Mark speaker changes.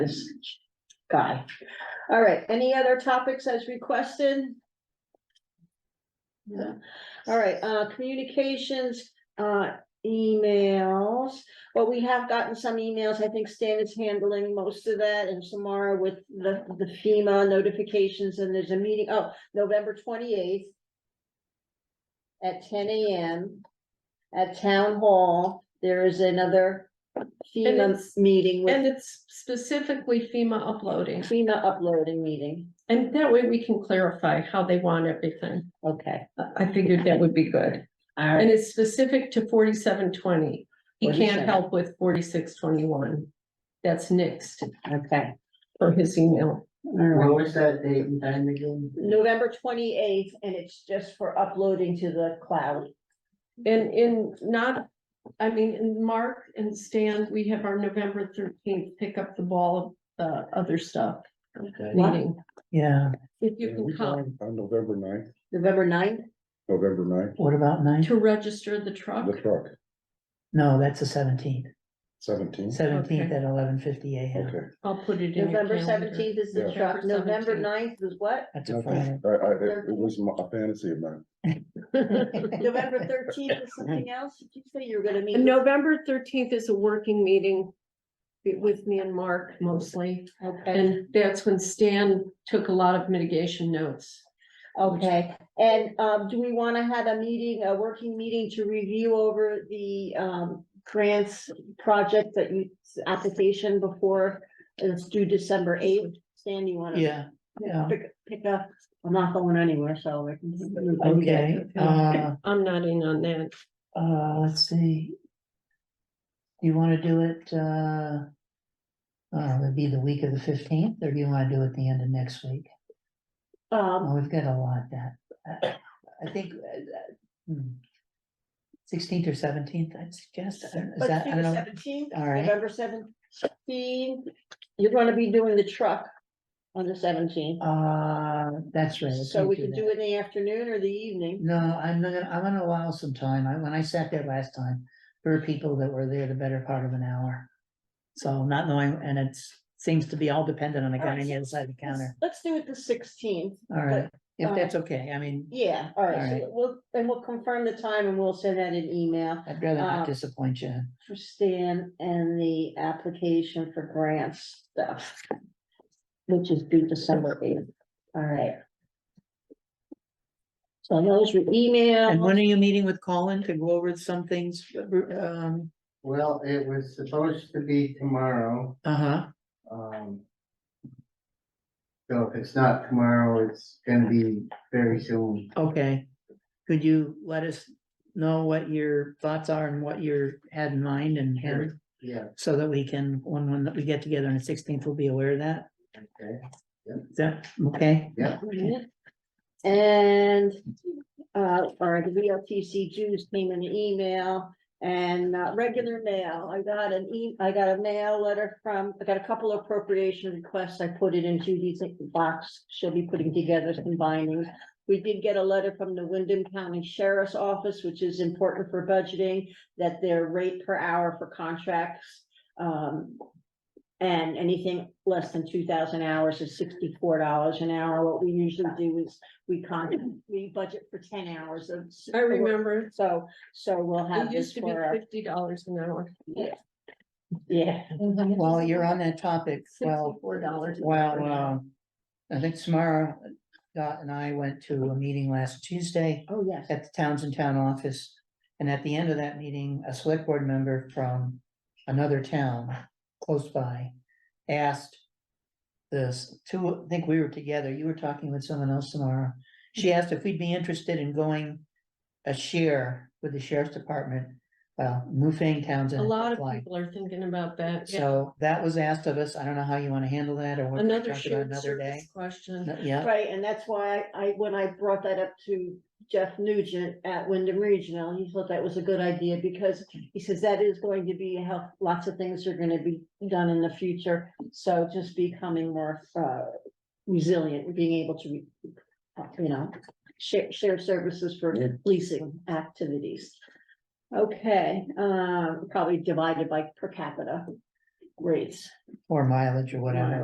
Speaker 1: this guy. All right, any other topics as requested? No. All right, uh, communications, uh, emails. Well, we have gotten some emails. I think Stan is handling most of that and Samara with the, the FEMA notifications and there's a meeting, oh, November twenty-eighth at ten AM at Town Hall. There is another FEMA
Speaker 2: it's-
Speaker 1: meeting with
Speaker 2: And it's specifically FEMA uploading,
Speaker 1: FEMA uploading meeting.
Speaker 2: and that way we can clarify how they want everything.
Speaker 1: Okay,
Speaker 2: I- I figured that would be good,
Speaker 1: all
Speaker 2: and
Speaker 1: right,
Speaker 2: it's specific to forty-seven twenty. He
Speaker 1: 47.
Speaker 2: can't help with forty-six twenty-one. That's next
Speaker 1: okay.
Speaker 2: for his email.
Speaker 1: all right.
Speaker 3: When was that date and time again?
Speaker 1: November twenty-eighth and it's just for uploading to the cloud.
Speaker 2: And in not, I mean, in Mark and Stan, we have our November thirteenth, pick up the ball of the other stuff
Speaker 3: Okay.
Speaker 2: meeting.
Speaker 4: Yeah,
Speaker 2: If you
Speaker 5: Yeah, we
Speaker 2: can come
Speaker 5: going On November ninth,
Speaker 1: November 9th.
Speaker 5: November ninth,
Speaker 4: what about nine?
Speaker 2: to register the truck.
Speaker 5: the truck,
Speaker 4: No, that's the seventeenth,
Speaker 5: seventeen,
Speaker 4: seventeenth
Speaker 2: Okay.
Speaker 4: at eleven fifty AM.
Speaker 5: okay.
Speaker 2: I'll put it in. your
Speaker 1: November
Speaker 2: calendar.
Speaker 1: seventeenth is the
Speaker 5: Yeah.
Speaker 1: truck, November
Speaker 2: November
Speaker 1: 9th is what?
Speaker 4: That's a Friday.
Speaker 5: Nothing. I, I, it it was my- a fantasy of mine.
Speaker 1: November thirteenth is something else, did you say you were gonna meet? with-
Speaker 2: November thirteenth is a working meeting be- with me and Mark mostly,
Speaker 1: Okay,
Speaker 2: and that's when Stan took a lot of mitigation notes.
Speaker 1: okay, and, um, do we wanna have a meeting, a working meeting to review over the, um, grants project that you, application before it's due December eighth? Stan, you wanna?
Speaker 4: Yeah, yeah,
Speaker 1: Pick, pick up, I'm not going anywhere, so. we can-
Speaker 4: okay, uh,
Speaker 2: I'm not in on that.
Speaker 4: uh, let's see. You wanna do it, uh. Uh, it'd be the week of the fifteenth, or do you wanna do it the end of next week?
Speaker 1: Um,
Speaker 4: Oh, we've got a lot that, uh, I think. uh, hmm, Sixteenth or seventeenth, I'd suggest, I don't- is
Speaker 1: let's
Speaker 4: that,
Speaker 1: do
Speaker 4: I don't
Speaker 1: the
Speaker 4: know,
Speaker 1: seventeenth,
Speaker 4: all right,
Speaker 1: November seventeenth, you're gonna be doing the truck on the seventeenth.
Speaker 4: uh, that's right. I
Speaker 1: So
Speaker 4: can't
Speaker 1: we can
Speaker 4: that.
Speaker 1: do it in the afternoon or the evening.
Speaker 4: No, I'm not, gonna- I'm gonna allow some time. I, when I sat there last time, there were people that were there the better part of an hour. So not knowing, and it seems to be all dependent on the guy on the other side of the counter.
Speaker 1: Let's- Let's do it the sixteenth,
Speaker 4: All right, if
Speaker 1: uh,
Speaker 4: that's okay, I mean,
Speaker 1: yeah, all right, so
Speaker 4: Alright.
Speaker 1: we'll, and we'll confirm the time and we'll send out an email
Speaker 4: I'd rather
Speaker 1: uh,
Speaker 4: not disappoint you.
Speaker 1: for Stan and the application for grants stuff. Which is due December eighth, all right. So those were email.
Speaker 4: And when are you meeting with Colin to go over some things? Um,
Speaker 3: Well, it was supposed to be tomorrow,
Speaker 4: uh-huh,
Speaker 3: um. So if it's not tomorrow, it's gonna be very soon.
Speaker 4: okay. Could you let us know what your thoughts are and what you had in mind and
Speaker 3: Sure. Yeah,
Speaker 4: so that we can, when, when we get together on the sixteenth, we'll be aware of that?
Speaker 3: okay.
Speaker 4: Is that okay?
Speaker 1: Alright. And, uh, our VLTC dues came in an email and uh, regular mail. I got an e, I got a mail letter from, I got a couple of appropriation requests. I put it in Judy's box. She'll be putting together some bindings. We did get a letter from the Wyndham County Sheriff's Office, which is important for budgeting, that their rate per hour for contracts um, and anything less than two thousand hours is sixty-four dollars an hour. What we usually do is we con, we budget for ten hours of. s-
Speaker 2: I remember,
Speaker 1: So, so we'll have
Speaker 2: it
Speaker 1: this
Speaker 2: used to be
Speaker 1: for, our-
Speaker 2: fifty dollars an hour.
Speaker 1: yeah,
Speaker 4: While you're on that topic, well,
Speaker 2: Sixty-four dollars.
Speaker 4: well, um, I think Samara, Dot and I went to a meeting last Tuesday
Speaker 1: oh, yes.
Speaker 4: at the Townsend Town Office. And at the end of that meeting, a select board member from another town close by asked this, two, I think we were together, you were talking with someone else tomorrow. She asked if we'd be interested in going a share with the sheriff's department, well, Newfane
Speaker 2: A
Speaker 4: Townsend.
Speaker 2: lot of
Speaker 4: applied.
Speaker 2: people are thinking about that. yeah.
Speaker 4: So that was asked of us. I don't know how you wanna handle that or what.
Speaker 2: Another
Speaker 4: talk about
Speaker 2: shared
Speaker 4: Another day.
Speaker 2: service question.
Speaker 4: No- Yeah,
Speaker 1: Right, and that's why I, when I brought that up to Jeff Nugent at Wyndham Regional, he thought that was a good idea because he says that is going to be how lots of things are gonna be done in the future. So just becoming more uh resilient, being able to, uh, you know, share, share services for
Speaker 5: Yeah.
Speaker 1: policing activities. Okay, um, probably divided by per capita. rates.
Speaker 4: or mileage or whatever.